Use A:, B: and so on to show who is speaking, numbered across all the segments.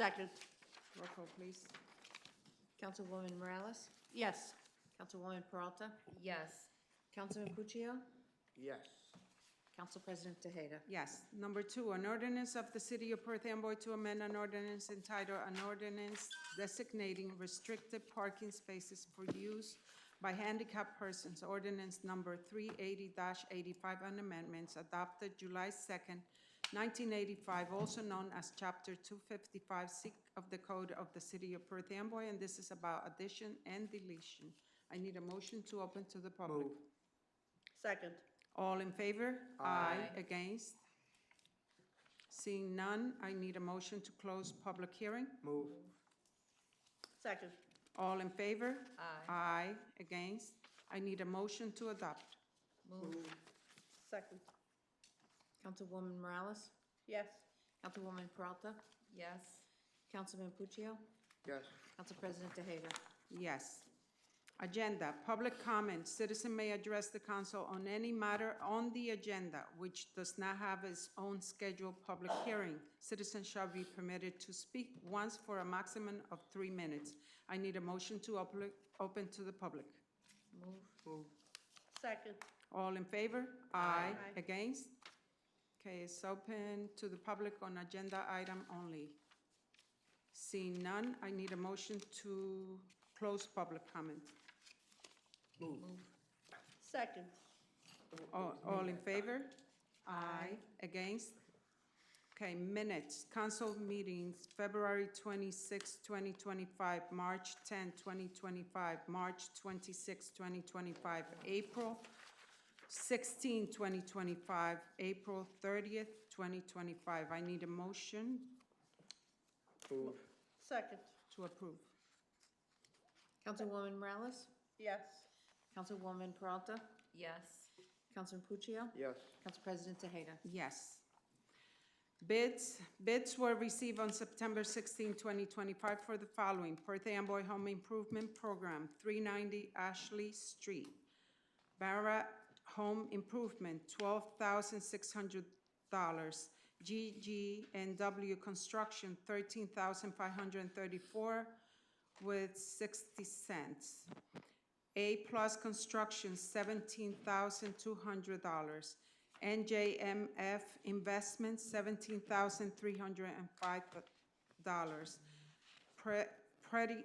A: Second.
B: Roll call, please. Councilwoman Morales?
A: Yes.
B: Councilwoman Peralta?
C: Yes.
B: Councilman Puccio?
A: Yes.
B: Council President Tejeda?
D: Yes. Number two, an ordinance of the City of Perth Amboy to amend an ordinance entitled, an ordinance designating restricted parking spaces for use by handicapped persons, ordinance number three eighty eighty-five, and amendments adopted July second, nineteen eighty-five, also known as Chapter two fifty-five, sec of the Code of the City of Perth Amboy, and this is about addition and deletion. I need a motion to open to the public.
A: Move. Second.
D: All in favor?
A: Aye.
D: Against? Seeing none, I need a motion to close public hearing.
A: Move. Second.
D: All in favor?
C: Aye.
D: Aye. Against? I need a motion to adopt.
C: Move.
A: Second.
B: Councilwoman Morales?
A: Yes.
B: Councilwoman Peralta?
C: Yes.
B: Councilman Puccio?
A: Yes.
B: Council President Tejeda?
D: Yes. Agenda, public comment, citizen may address the council on any matter on the agenda which does not have its own scheduled public hearing. Citizen shall be permitted to speak once for a maximum of three minutes. I need a motion to open, open to the public.
C: Move.
A: Move. Second.
D: All in favor?
A: Aye. Aye.
D: Against? Okay, it's open to the public on agenda item only. Seeing none, I need a motion to close public comment.
A: Second.
D: All, all in favor? Aye. Against? Okay, minutes, council meetings, February 26, 2025, March 10, 2025, March 26, 2025, April 16, 2025, April 30th, 2025. I need a motion
A: Move. Second.
D: to approve.
B: Councilwoman Morales?
A: Yes.
B: Councilwoman Peralta?
C: Yes.
B: Councilman Puccio?
A: Yes.
B: Council President Tejeda?
D: Yes. Bids, bids were received on September 16, 2025 for the following: Perth Amboy Home Improvement Program, 390 Ashley Street. Barra Home Improvement, $12,600. GGNW Construction, $13,534 with 60 cents. A-plus Construction, seventeen thousand two hundred dollars. NJMF Investments, seventeen thousand three hundred and five dollars. Pretty,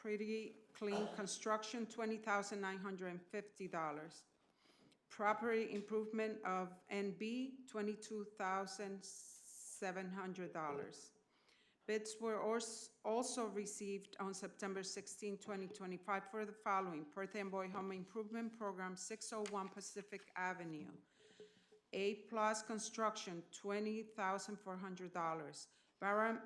D: Pretty Clean Construction, twenty thousand nine hundred and fifty dollars. Property Improvement of NB, twenty-two thousand seven hundred dollars. Bids were als- also received on September 16, 2025 for the following: Perth Amboy Home Improvement Program, 601 Pacific Avenue. A-plus Construction, $20,400. Barham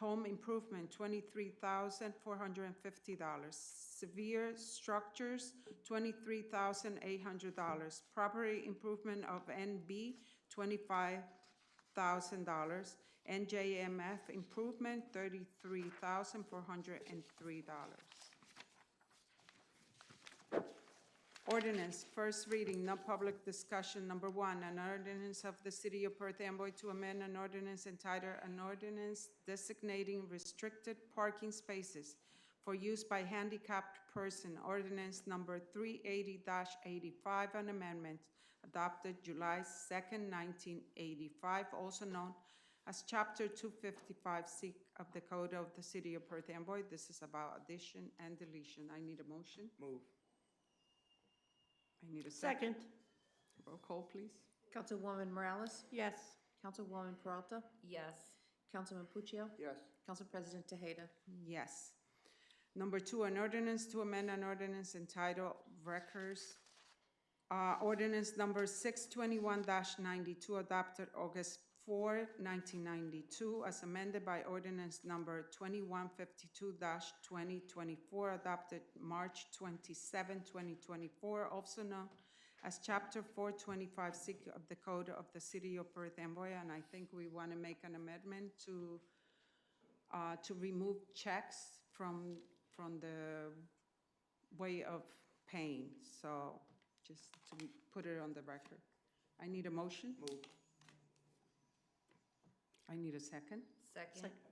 D: Home Improvement, $23,450. Severe Structures, $23,800. Property Improvement of NB, 25000 dollars NJMF Improvement, $33,403. Ordinance, first reading, no public discussion. Number one, an ordinance of the City of Perth Amboy to amend an ordinance entitled, an ordinance designating restricted parking spaces for use by handicapped person, ordinance number three eighty eighty-five, an amendment adopted July second nineteen eighty-five, also known as chapter two fifty-five C of the Code of the City of Perth Amboy. This is about addition and deletion. I need a motion.
A: Move.
D: I need a second.
A: Second.
D: Roll call, please.
B: Councilwoman Morales?
A: Yes.
B: Councilwoman Peralta?
C: Yes.
B: Councilman Puccio?
A: Yes.
B: Council President Tejeda?
D: Yes. Number two, an ordinance to amend an ordinance entitled Records, uh, ordinance number six twenty-one ninety-two adopted August 4, 1992, as amended by ordinance number twenty-one fifty-two twenty twenty-four adopted March 27, 2024, also known as chapter four twenty-five C of the Code of the City of Perth Amboy, and I think we want to make an amendment to uh, to remove checks from, from the way of paying. So just to put it on the record. I need a motion.
A: Move.
D: I need a second.
C: Second.